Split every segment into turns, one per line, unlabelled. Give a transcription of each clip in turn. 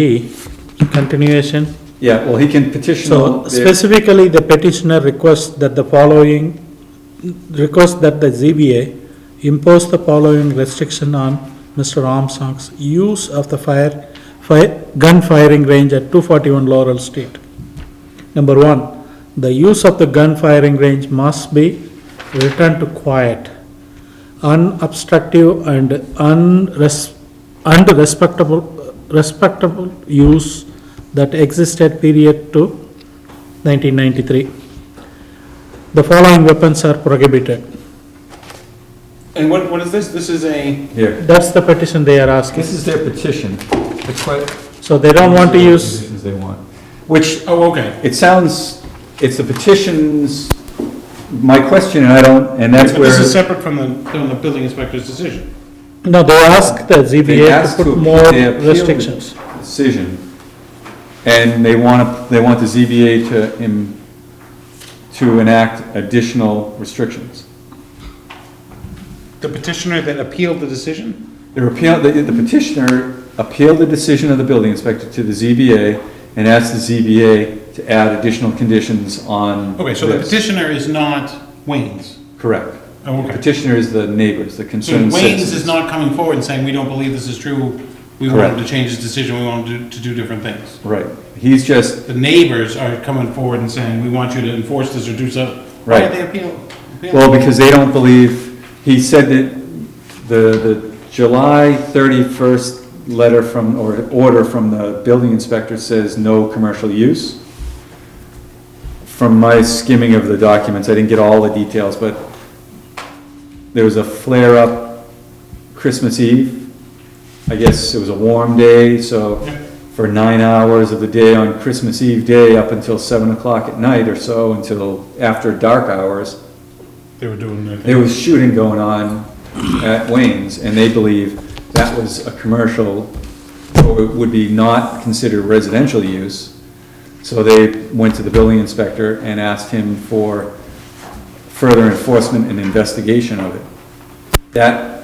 D, continuation.
Yeah, well, he can petition.
So
on there.
specifically, the petitioner requests that the following, requests that the ZBA impose the following restriction on Mr. Armstrong's use of the fire, fire, gun firing range at two forty-one Laurel Street. Number one, the use of the gun firing range must be returned to quiet, unobstructive and unres, unrespectable, respectable use that existed period to nineteen ninety-three. The following weapons are prohibited.
And what, what is this? This is a,
Here,
That's the petition they are
this
asking.
is their petition. That's what.
So they don't want to use,
Petitions they want, which,
oh, okay.
it sounds, it's the petitions, my question, and I don't, and that's
But
where.
this is separate from the, from the building inspector's decision.
no, they ask the
They
ZBA
asked
to put
to-
more
they appealed it.
restrictions.
decision, and they want, they want the ZBA to, em- to enact additional restrictions.
The petitioner that appealed the decision?
The repeal, the the petitioner appealed the decision of the building inspector to the ZBA and asked the ZBA to add additional conditions on.
Okay, so the
this.
petitioner is not Wayne's.
Correct.
Oh,
The
okay.
petitioner is the neighbors, the
So
concerned
Wayne's
citizens.
is not coming forward and saying, we don't believe this is true. We want him to
Correct.
change his decision. We want him to, to do different things.
Right, he's just,
The neighbors are coming forward and saying, we want you to enforce this or do something. Why
Right.
did they appeal? appeal?
well, because they don't believe, he said that the, the July thirty-first letter from, or order from the building inspector says no commercial use. From my skimming of the documents, I didn't get all the details, but there was a flare-up Christmas Eve. I guess it was a warm day, so
Yeah.
for nine hours of the day on Christmas Eve day up until seven o'clock at night or so, until after dark hours,
They were doing their thing.
there was shooting going on at Wayne's, and they believe that was a commercial, or it would be not considered residential use. So they went to the building inspector and asked him for further enforcement and investigation of it. That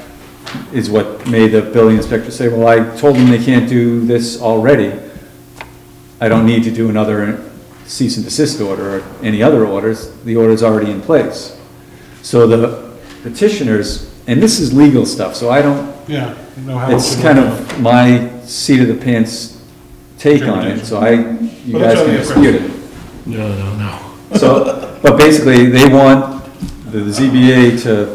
is what made the building inspector say, well, I told them they can't do this already. I don't need to do another cease and desist order or any other orders, the order's already in place. So the petitioners, and this is legal stuff, so I don't,
Yeah. know how it
it's
should
kind
work out.
of my seat of the pants take on it, so I, you
But
guys
that's
can
only a
dispute it.
No, no, no.
So, but basically, they want the the ZBA to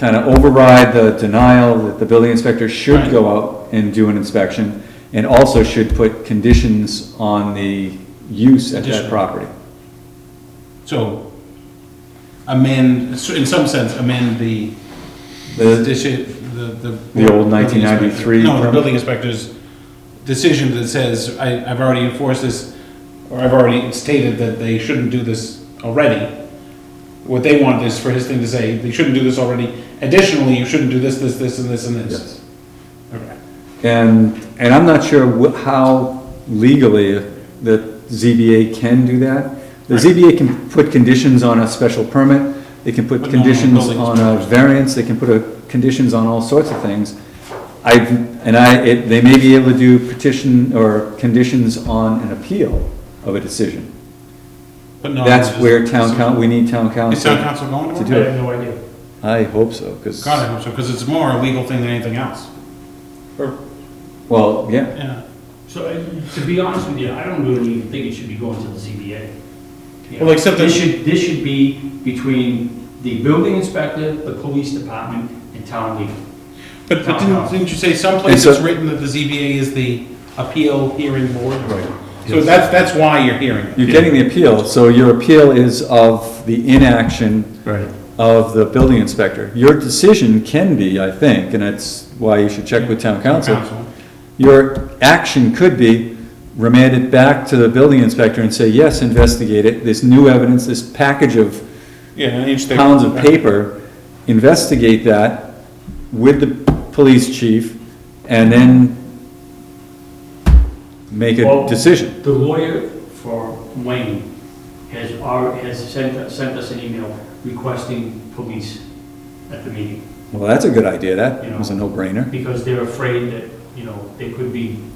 kind of override the denial that the building inspector should
Right.
go out and do an inspection, and also should put conditions on the use at that
Additional.
property.
So amend, in some sense, amend the, the,
The-
deci- the.
The old 1993
No, the
permit?
building inspector's decision that says, I, I've already enforced this, or I've already stated that they shouldn't do this already. What they want is for his thing to say, they shouldn't do this already. Additionally, you shouldn't do this, this, this, and this, and this.
Yes.
Okay.
And, and I'm not sure wh- how legally the ZBA can do that. The
Right.
ZBA can put conditions on a special permit, they can put
But not on
conditions
building
on a variance, they can put a, conditions on all sorts of things. I, and I, it, they may be able to do petition or conditions on an appeal of a decision.
But no.
That's
it's-
where town coun, we need town
Is town
council.
council
to
going to work?
do
I
it.
have no idea.
I hope so, because,
God, I hope so, because it's more a legal thing than anything else. Or,
well, yeah,
yeah.
So, uh, to be honest with you, I don't really even think it should be going to the ZBA. You know,
Well, except that-
This should, this should be between the building inspector, the police department, and town legal.
But, but
Town
didn't,
hall.
didn't you say someplace
It's a-
it's written that the ZBA is the appeal hearing board?
Right.
So that's, that's why you're hearing it.
you're getting the appeal, so your appeal is of the inaction
Right.
of the building inspector. Your decision can be, I think, and that's why you should check with town council. Your action could be remand it back to the building inspector and say, yes, investigate it, this new evidence, this package of
Yeah, and each they-
pounds of paper, investigate that with the police chief, and then make a
Well-
decision.
The lawyer for Wayne has, al- has sent, sent us an email requesting police at the meeting.
Well, that's a good idea,
You
that
know.
was a no-brainer.
because they're afraid that you know, they could be